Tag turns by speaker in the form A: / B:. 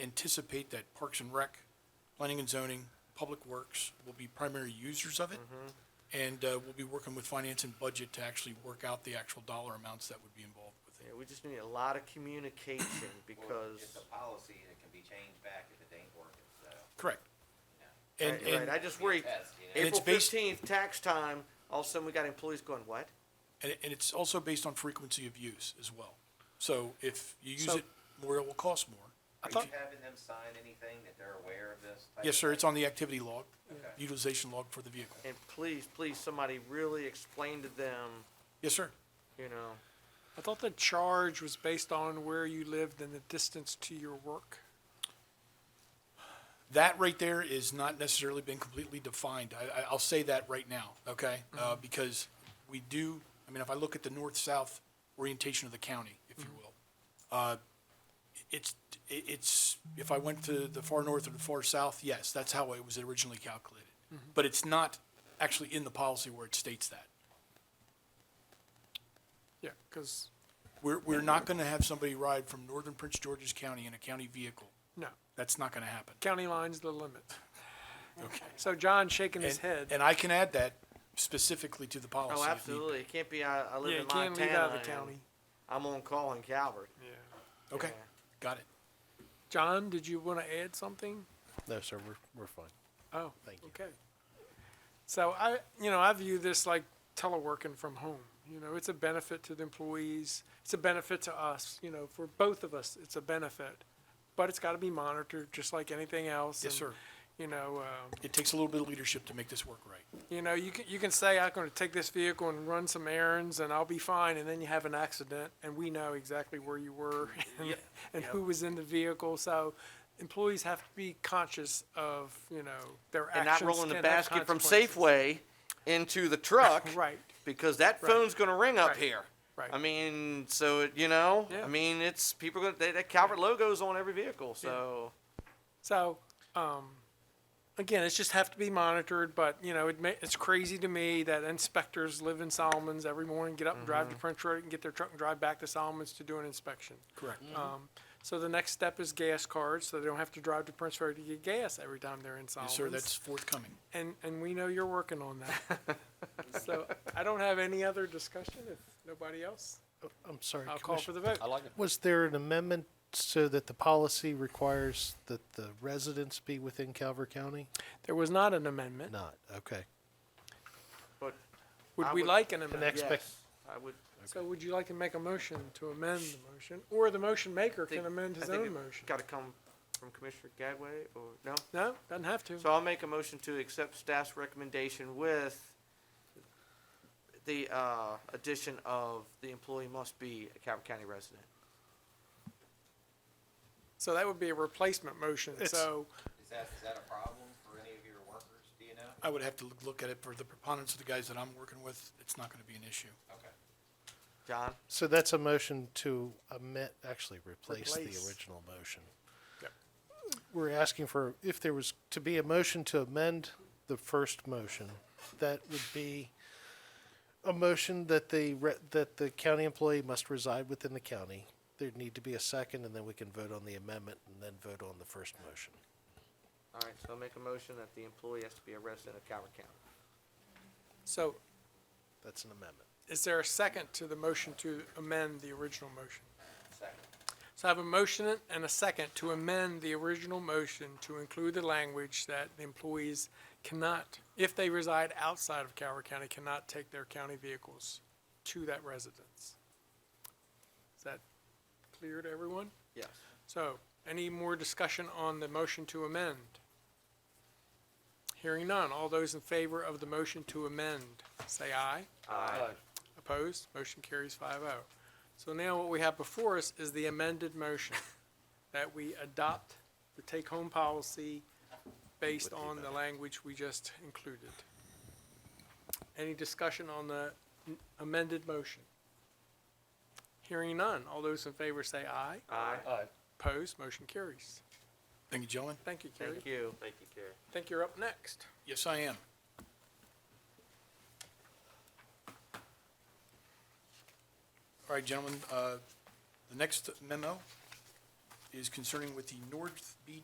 A: anticipate that Parks and Rec, Planning and Zoning, Public Works will be primary users of it. And, uh, we'll be working with finance and budget to actually work out the actual dollar amounts that would be involved with it.
B: Yeah, we just need a lot of communication
C: Well,
B: because,
C: It's a policy that can be changed back if it ain't working, so,
A: Correct.
C: you know.
A: And,
B: right, right,
A: and,
B: I just worry,
C: Be a test, you know?
A: and it's
B: April
A: based-
B: fifteenth, tax time, all of a sudden we got employees going, what?
A: and and it's also based on frequency of use as well. So if you use
D: So-
A: it more, it will cost more.
C: Are
A: If you-
C: you having them sign anything that they're aware of this? type
A: Yes,
C: of
A: sir, it's
C: thing?
A: on the activity log,
C: Okay.
A: utilization log for the vehicle.
B: And please, please, somebody really explain to them,
A: Yes, sir.
B: you know,
D: I thought the charge was based on where you lived and the distance to your work.
A: That right there is not necessarily been completely defined. I, I, I'll say that right now, okay? Uh,
B: Mm-hmm.
A: because we do, I mean, if I look at the north-south orientation of the county, if
B: Mm-hmm.
A: you will, uh, it's, it- it's, if I went to the far north or the far south, yes, that's how it was originally calculated.
B: Mm-hmm.
A: But it's not actually in the policy where it states that.
D: Yeah, because,
A: We're, we're not gonna have somebody ride from northern Prince George's County in a county vehicle.
D: no,
A: That's not gonna happen.
D: county line's the limit.
A: Okay.
D: So John shaking his
A: And,
D: head.
A: and I can add that specifically to the policy.
B: oh,
A: if need be.
B: absolutely, it can't be, I, I
D: Yeah,
B: live
D: you
B: in
D: can't leave out
B: Montana
D: of the
B: and
D: county.
B: I'm on call in Calvert.
D: Yeah.
A: Okay,
B: Yeah.
A: got it.
D: John, did you want to add something?
E: No, sir, we're, we're fine.
D: Oh,
E: Thank you.
D: okay. So I, you know, I view this like teleworking from home. You know, it's a benefit to the employees. It's a benefit to us, you know, for both of us, it's a benefit. But it's got to be monitored, just like anything else.
A: Yes,
D: and,
A: sir.
D: You know, um,
A: It takes a little bit of leadership to make this work right.
D: You know, you can, you can say, I'm gonna take this vehicle and run some errands and I'll be fine, and then you have an accident and we know exactly where you were and, and who was in the vehicle, so employees have to be conscious of, you know, their
B: And
D: actions
B: not rolling the
D: can have
B: basket from
D: consequences.
B: Safeway into the truck.
D: Right,
B: because that
D: Right.
B: phone's going to ring up
D: Right.
B: here.
D: Right.
B: I mean, so it, you know,
D: Yeah.
B: I mean, it's people going that, that Calvert logo's on every vehicle. So
D: so, um, again, it's just have to be monitored, but, you know, it ma- it's crazy to me that inspectors live in Solomons every morning, get up and
B: Mm-hmm.
D: drive to Prince Road and get their truck and drive back to Solomons to do an inspection.
A: Correct.
E: Mm-hmm.
B: Mm-hmm.
D: Um, so the next step is gas cards, so they don't have to drive to Prince Road to get gas every time they're in
A: Yes,
D: Solomons.
A: sir, that's forthcoming.
D: And, and we know you're working on that. So I don't have any other discussion, if nobody else,
E: I'm sorry.
D: I'll call for the vote.
E: like it. Was there an amendment so that the policy requires that the residents be within Calvert County?
D: There was not an amendment.
E: Not, okay.
D: Would
B: I
D: we
B: would-
D: like an amendment?
E: Next expect-
B: yes, I would.
D: So would you like to make a motion to amend the motion, or the motion maker
B: think-
D: can amend
B: I
D: his
B: think
D: own
B: it
D: motion?
B: Got to come from Commissioner Gadway or no?
D: No, doesn't have to.
B: So I'll make a motion to accept staff's recommendation with the uh, addition of the employee must be a Calvert County resident.
D: So that would be a replacement motion,
E: It's-
D: so,
C: Is that, is that a problem for any of your workers, do you know?
A: I would have to look- look at it for the preponderance of the guys that I'm working with. It's not gonna be an issue.
C: Okay.
B: John,
E: So that's a motion to amend, actually replace the
D: Replace.
E: original motion.
D: Yep.
E: We're asking for, if there was to be a motion to amend the first motion, that would be a motion that the, re- that the county employee must reside within the county. There'd need to be a second, and then we can vote on the amendment and then vote on the first motion.
B: all right. So I'll make a motion that the employee has to be a resident of Calvert County.
D: so
E: That's an amendment.
D: is there a second to the motion to amend the original motion?
C: Second.
D: So I have a motion and a second to amend the original motion to include the language that the employees cannot, if they reside outside of Calvert County, cannot take their county vehicles to that residence. Is that clear to everyone?
B: Yes.
D: So, any more discussion on the motion to amend? Hearing none, all those in favor of the motion to amend, say aye.
B: Aye.
D: Opposed? Motion carries 5-0. So now what we have before us is the amended motion that we adopt the take-home policy based on the language we just included. Any discussion on the n- amended motion? Hearing none. All those in favor say aye.
B: Aye.
D: Opposed? Motion carries.
A: Thank you, gentlemen.
D: Thank you, Carrie.
B: Thank you. Thank you, Carrie.
D: I think you're up next.
A: Yes, I am. All right, gentlemen, uh, the next memo is concerning with the North Beach